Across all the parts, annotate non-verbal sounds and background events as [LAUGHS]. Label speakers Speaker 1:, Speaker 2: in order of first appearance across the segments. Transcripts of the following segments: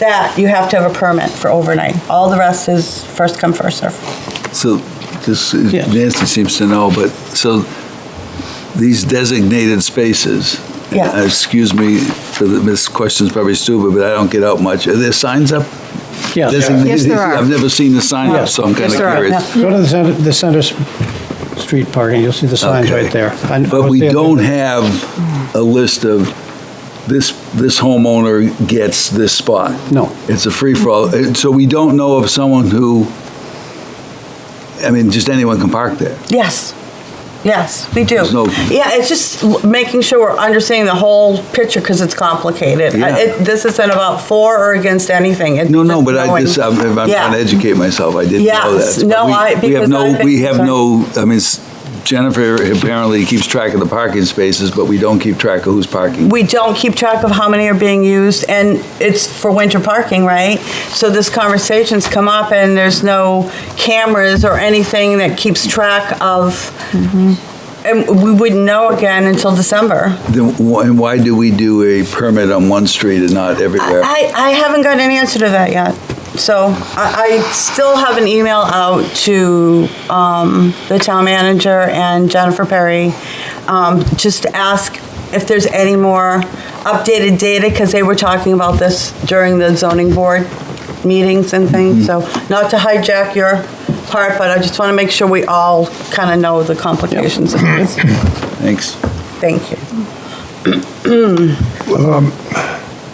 Speaker 1: that you have to have a permit for overnight. All the rest is first come, first serve.
Speaker 2: So this, is-
Speaker 3: Yeah.
Speaker 2: Nancy seems to know, but, so these designated spaces,
Speaker 1: Yeah.
Speaker 2: Uh, excuse me, for the- this question's probably stupid, but I don't get out much. Are there signs up?
Speaker 3: Yeah.
Speaker 2: Designated-
Speaker 4: Yes, there are.
Speaker 2: I've never seen the sign up,
Speaker 3: Yes.
Speaker 2: so I'm kind
Speaker 4: Yes,
Speaker 2: of
Speaker 4: there are.
Speaker 2: curious.
Speaker 3: Go to the center, the center s- street parking, you'll see the signs
Speaker 2: Okay.
Speaker 3: right there. I- I
Speaker 2: But
Speaker 3: was
Speaker 2: we
Speaker 3: there the other
Speaker 2: don't
Speaker 3: day.
Speaker 2: have a list of, this, this homeowner gets this spot.
Speaker 3: No.
Speaker 2: It's a free-for-all, And Uh, so we don't know of someone who, I mean, just anyone can park there.
Speaker 1: Yes. Yes, we do.
Speaker 2: There's no-
Speaker 1: Yeah, it's just l- making sure we're understanding the whole picture because it's complicated.
Speaker 2: Yeah.
Speaker 1: I- it- This isn't about for or against anything. It's
Speaker 2: No, no,
Speaker 1: just
Speaker 2: but I
Speaker 1: knowing-
Speaker 2: just, I'm, I'm trying
Speaker 1: Yeah.
Speaker 2: to educate myself, I didn't know
Speaker 1: Yes,
Speaker 2: that.
Speaker 1: no,
Speaker 2: We-
Speaker 1: I-
Speaker 2: We have
Speaker 1: because I've
Speaker 2: no,
Speaker 1: been
Speaker 2: we have no, I mean, s- Jennifer apparently keeps track of the parking spaces, but we don't keep track of who's parking.
Speaker 1: we don't keep track of how many are being used, and it's for winter parking, right? So this conversation's come up, and there's no cameras or anything that keeps track of, and we wouldn't know again until December.
Speaker 2: Then why, and why do we do a permit on one street and not everywhere?
Speaker 1: I, I haven't got an answer to that yet. So I, I still have an email out to um, the town manager and Jennifer Perry, um, just to ask if there's any more updated data, because they were talking about this during the zoning board meetings and things. So not to hijack your part, but I just want to make sure we all kind of know the complications of this.
Speaker 2: Thanks.
Speaker 1: Thank you.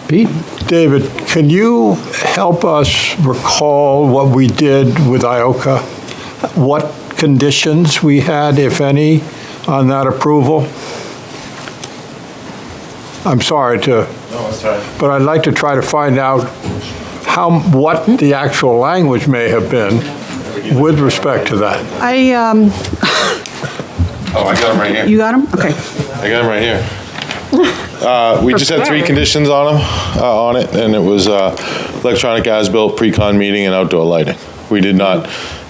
Speaker 3: Pete?
Speaker 5: David, can you help us recall what we did with IOCA? What conditions we had, if any, on that approval? I'm sorry to,
Speaker 6: No, it's all right.
Speaker 5: but I'd like to try to find out how, what the actual language may have been with respect to that.
Speaker 4: I, um,
Speaker 6: Oh, I got them right here.
Speaker 4: you got them? Okay.
Speaker 6: I got them right
Speaker 7: [LAUGHS]
Speaker 6: here. Uh, We just had three
Speaker 4: Prepared.
Speaker 6: conditions on them, on it, and it was uh, electronic as-built, pre-con meeting, and outdoor lighting. We did not,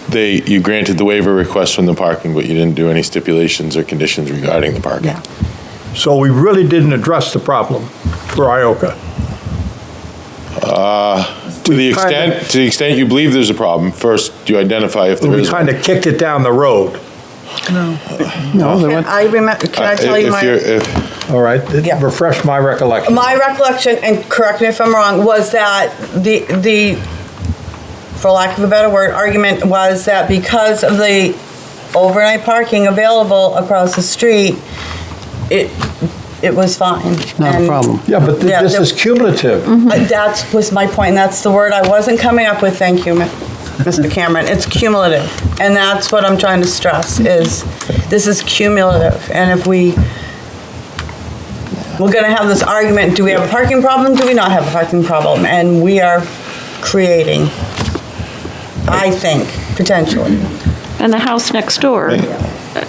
Speaker 6: they, you granted the waiver request from the parking, but you didn't do any stipulations or conditions regarding the parking.
Speaker 1: Yeah.
Speaker 5: So we really didn't address the problem for IOCA.
Speaker 6: Uh, To the
Speaker 5: We kinda-
Speaker 6: extent, to the extent you believe there's a problem, first you identify if there
Speaker 5: We
Speaker 6: is. one.
Speaker 5: kind of kicked it down the road.
Speaker 3: No, they
Speaker 1: Can
Speaker 3: went,
Speaker 1: I remember, can I
Speaker 6: Uh,
Speaker 1: tell
Speaker 6: if-
Speaker 1: you
Speaker 6: if
Speaker 1: my?
Speaker 6: you're- if-
Speaker 5: All right,
Speaker 1: Yeah.
Speaker 5: refresh my recollection.
Speaker 1: My recollection, and correct me if I'm wrong, was that the, the, for lack of a better word, argument was that because of the overnight parking available across the street, it, it was fine.
Speaker 3: not a
Speaker 1: And
Speaker 3: problem.
Speaker 5: Yeah, but th-
Speaker 1: Yeah,
Speaker 5: this
Speaker 1: the-
Speaker 5: is cumulative.
Speaker 1: That was my point, and that's the word I wasn't coming up with, thank you, Mi- Mr. Cameron. It's cumulative, and that's what I'm trying to stress, is this is cumulative, and if we, we're gonna have this argument, do we have a parking problem, do we not have a parking problem? And we are creating, I think, potentially.
Speaker 7: And the house next door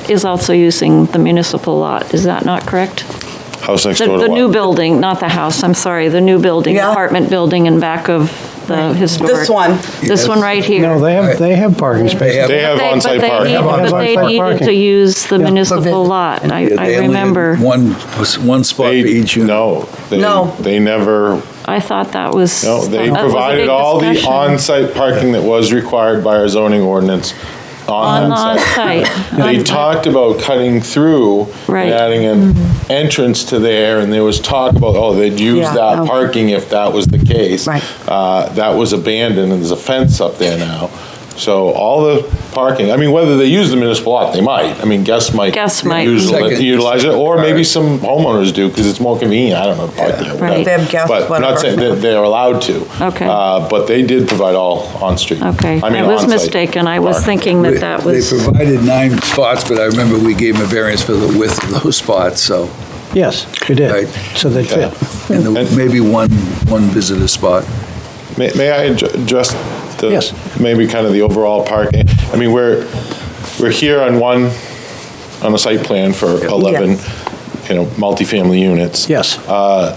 Speaker 7: is also using the municipal lot, is that not correct?
Speaker 6: House next
Speaker 7: The
Speaker 6: door to
Speaker 7: the
Speaker 6: what?
Speaker 7: new building, not the house, I'm sorry, the new building,
Speaker 1: Yeah.
Speaker 7: apartment building in back of the historic.
Speaker 1: This one,
Speaker 7: This one right here.
Speaker 3: No, they have, they have parking spaces.
Speaker 6: They have
Speaker 7: They- but
Speaker 6: on-site
Speaker 7: they
Speaker 6: parking.
Speaker 7: need- But they
Speaker 3: on-site
Speaker 7: needed
Speaker 3: parking.
Speaker 7: to use the
Speaker 3: Yeah.
Speaker 7: municipal lot, I,
Speaker 2: Yeah,
Speaker 7: I
Speaker 2: they only had
Speaker 7: remember.
Speaker 2: One, one spot for
Speaker 6: They-
Speaker 2: each unit.
Speaker 6: No. they-
Speaker 1: No.
Speaker 6: They never
Speaker 7: I thought that was.
Speaker 6: No, they
Speaker 7: that was a big
Speaker 6: provided all the
Speaker 7: discussion.
Speaker 6: on-site parking that was required by our zoning ordinance
Speaker 7: On
Speaker 6: on on-site.
Speaker 7: on-site. [LAUGHS]
Speaker 6: They talked about cutting through and
Speaker 7: Right. Mm-hmm.
Speaker 6: adding an entrance to there, and there was talk about, oh, they'd use
Speaker 1: Yeah, no.
Speaker 6: that parking if that was the case.
Speaker 1: Right.
Speaker 6: Uh, That was abandoned, and there's a fence up there now. So all the parking, I mean, whether they use the municipal lot, they might. I mean, guests might.
Speaker 7: Guests might.
Speaker 6: use it-
Speaker 2: Second-
Speaker 6: Utilize it, or maybe
Speaker 2: second
Speaker 6: some homeowners do, because it's more convenient, I don't know. to park there,
Speaker 7: Right.
Speaker 6: whatever.
Speaker 1: They have guests,
Speaker 6: But I'm
Speaker 1: whatever.
Speaker 6: not saying that they're allowed to.
Speaker 7: Okay.
Speaker 6: Uh, But they did provide all on-street.
Speaker 7: Okay,
Speaker 6: I mean,
Speaker 7: I was
Speaker 6: on-site
Speaker 7: mistaken, I was
Speaker 6: parking.
Speaker 7: thinking that that was.
Speaker 2: They provided nine spots, but I remember we gave them a variance for the width of those spots, so,
Speaker 3: Yes, we did.
Speaker 2: Right.
Speaker 3: So they fit.
Speaker 2: and the- maybe one, one visitor spot.
Speaker 6: May, may I adj- address the
Speaker 3: Yes.
Speaker 6: maybe kind of the overall parking? I mean, we're we're here on one on a site plan for eleven, you know, multifamily units.
Speaker 3: Yes.
Speaker 6: Uh,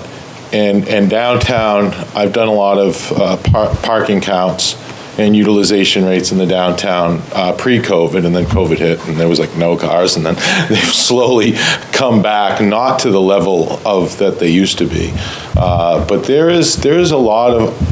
Speaker 6: and and downtown, I've done a lot of uh, par- parking counts and utilization rates in the downtown uh, pre-COVID, and then COVID hit, and there was like no cars, and then [LAUGHS] they've slowly come back, not to the level of that they used to be, uh, but there is there is a lot of